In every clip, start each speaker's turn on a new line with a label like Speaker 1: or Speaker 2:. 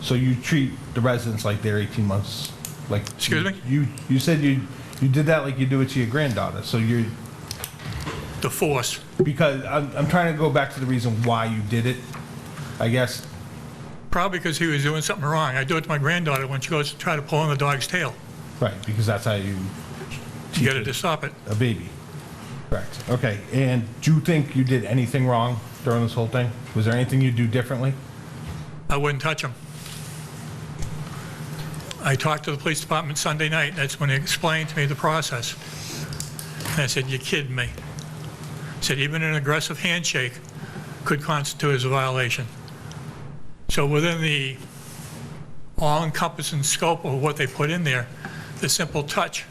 Speaker 1: So you treat the residents like they're 18 months, like.
Speaker 2: Excuse me?
Speaker 1: You, you said you, you did that like you do it to your granddaughter, so you're,
Speaker 2: the force.
Speaker 1: because I'm, I'm trying to go back to the reason why you did it, I guess.
Speaker 2: Probably because he was doing something wrong. I do it to my granddaughter when she goes to try to pull on the dog's tail.
Speaker 1: Right, because that's how you,
Speaker 2: You got her to stop it.
Speaker 1: a baby. Correct, okay. And do you think you did anything wrong during this whole thing? Was there anything you'd do differently?
Speaker 2: I wouldn't touch him. I talked to the police department Sunday night. That's when they explained to me the process. And I said, "You're kidding me." I Said, "Even an aggressive handshake could constitute as a violation." So within the all-encompassing scope of what they put in there, the simple touch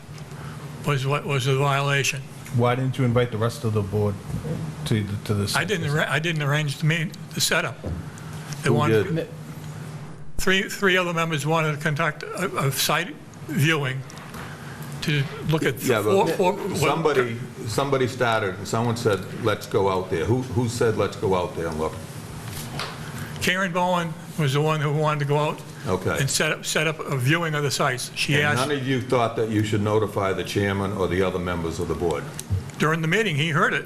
Speaker 2: was what was a violation.
Speaker 1: Why didn't you invite the rest of the board to, to this?
Speaker 2: I didn't, arra- I didn't arrange the meet, the setup. They wanted, three, three other members wanted to conduct a, a site viewing to look at
Speaker 3: Yeah,
Speaker 2: four,
Speaker 3: but
Speaker 2: four. well,
Speaker 3: somebody, somebody started, and someone said, "Let's go out there." Who, who said, "Let's go out there and look"?
Speaker 2: Karen Bowen was the one who wanted to go out.
Speaker 3: Okay.
Speaker 2: And set up, set up a viewing of the sites. She
Speaker 3: And
Speaker 2: asked,
Speaker 3: none of you thought that you should notify the chairman or the other members of the board?
Speaker 2: during the meeting, he heard it.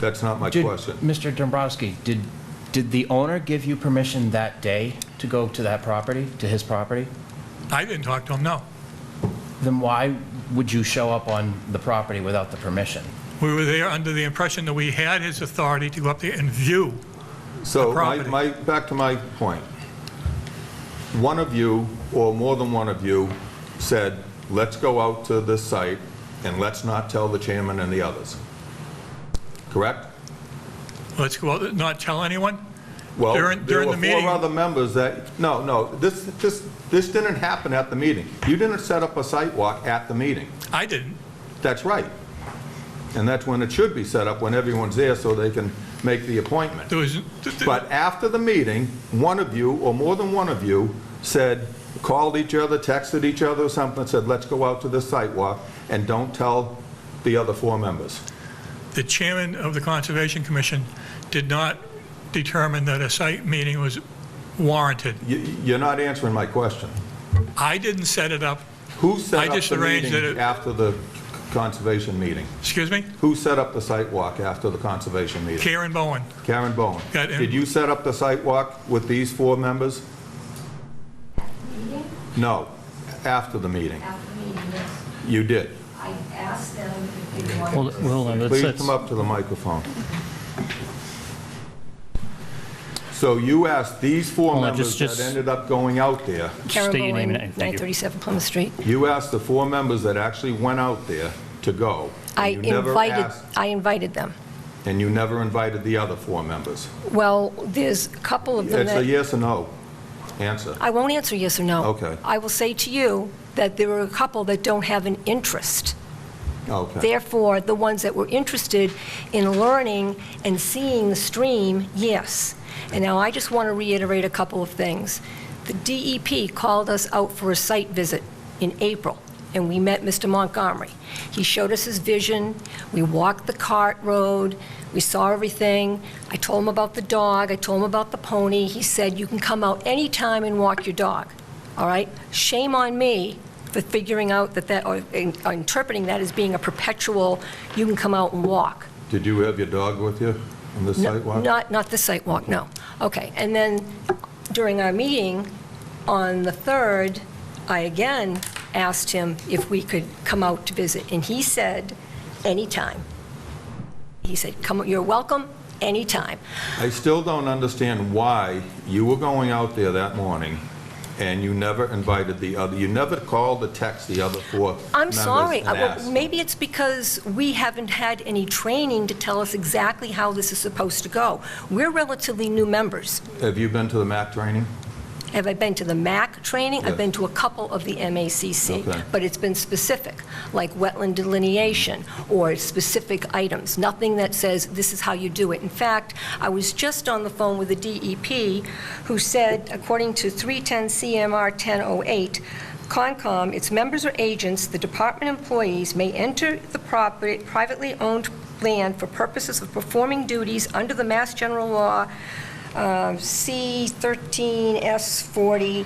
Speaker 3: That's not my
Speaker 4: Did-
Speaker 3: question.
Speaker 4: Mr. Dombrowski, did, did the owner give you permission that day to go to that property, to his property?
Speaker 2: I didn't talk to him, no.
Speaker 4: Then why would you show up on the property without the permission?
Speaker 2: We were there under the impression that we had his authority to go up there and view.
Speaker 3: So my,
Speaker 2: property.
Speaker 3: my, back to my point. One of you, or more than one of you, said, "Let's go out to this site, and let's not tell the chairman and the others." Correct?
Speaker 2: Let's go out, not tell anyone.
Speaker 3: Well,
Speaker 2: During-
Speaker 3: there
Speaker 2: during
Speaker 3: were
Speaker 2: the meeting-
Speaker 3: four other members that, no, no, this, this, this didn't happen at the meeting. You didn't set up a site walk at the meeting.
Speaker 2: I didn't.
Speaker 3: That's right. And that's when it should be set up, when everyone's there so they can make the appointment.
Speaker 2: There was. th- th-
Speaker 3: But after the meeting, one of you, or more than one of you, said, called each other, texted each other or something, said, let's go out to this site walk, and don't tell the other four members.
Speaker 2: the chairman of the Conservation Commission did not determine that a site meeting was warranted.
Speaker 3: You, you're not answering my question.
Speaker 2: I didn't set it up,
Speaker 3: Who set
Speaker 2: I
Speaker 3: up
Speaker 2: just
Speaker 3: the
Speaker 2: arranged
Speaker 3: meeting
Speaker 2: it.
Speaker 3: after the conservation meeting?
Speaker 2: excuse me,
Speaker 3: Who set up the site walk after the conservation meeting?
Speaker 2: Karen Bowen.
Speaker 3: Karen Bowen.
Speaker 2: Got it.
Speaker 3: Did you set up the site walk with these four members?
Speaker 5: meeting,
Speaker 3: No, after the meeting.
Speaker 5: after meeting, yes,
Speaker 3: You did.
Speaker 5: I asked them if they wanted
Speaker 6: Hold
Speaker 5: to.
Speaker 6: hold on, let's,
Speaker 3: Please
Speaker 6: let's-
Speaker 3: come up to the microphone. So you asked these four
Speaker 6: Hold on,
Speaker 3: members
Speaker 6: just-
Speaker 3: that
Speaker 6: just-
Speaker 3: ended up going out there,
Speaker 6: State your name and- thank you.
Speaker 5: 937 Plymouth Street.
Speaker 3: you asked the four members that actually went out there to go. and
Speaker 5: I
Speaker 3: you never
Speaker 5: invited,
Speaker 3: asked-
Speaker 5: I invited them.
Speaker 3: And you never invited the other four members.
Speaker 5: Well, there's a couple of them
Speaker 3: It's a
Speaker 5: that,
Speaker 3: yes or no answer.
Speaker 5: I won't answer yes or no.
Speaker 3: Okay.
Speaker 5: I will say to you that there were a couple that don't have an interest.
Speaker 3: Okay.
Speaker 5: Therefore, the ones that were interested in learning and seeing the stream, yes. And now I just want to reiterate a couple of things. The DEP called us out for a site visit in April, and we met Mr. Montgomery. He showed us his vision, we walked the cart road, we saw everything. I told him about the dog, I told him about the pony. He said, "You can come out anytime and walk your dog." All right? Shame on me for figuring out that that, or in- or interpreting that as being a perpetual, you can come out and walk.
Speaker 3: Did you have your dog with you on the
Speaker 5: No,
Speaker 3: site walk?
Speaker 5: Not, not the site walk, no. Okay, and then during our meeting on the 3rd, I again asked him if we could come out to visit, and he said, anytime. He said, come, you're welcome, anytime.
Speaker 3: I still don't understand why you were going out there that morning and you never invited the other, you never called the text the other four members
Speaker 5: I'm sorry.
Speaker 3: and
Speaker 5: Uh, well,
Speaker 3: asked.
Speaker 5: Maybe it's because we haven't had any training to tell us exactly how this is supposed to go. We're relatively new members.
Speaker 3: Have you been to the MAC training?
Speaker 5: Have I been to the MAC training? I've
Speaker 3: Yes.
Speaker 5: been to a couple of the MACC.
Speaker 3: Okay.
Speaker 5: But it's been specific, like wetland delineation or specific items, nothing that says, this is how you do it. In fact, I was just on the phone with the DEP, who said, according to 310 CMR 1008, Concom, its members or agents, the department employees may enter the property, privately owned land for purposes of performing duties under the Mass General Law uh, C13S40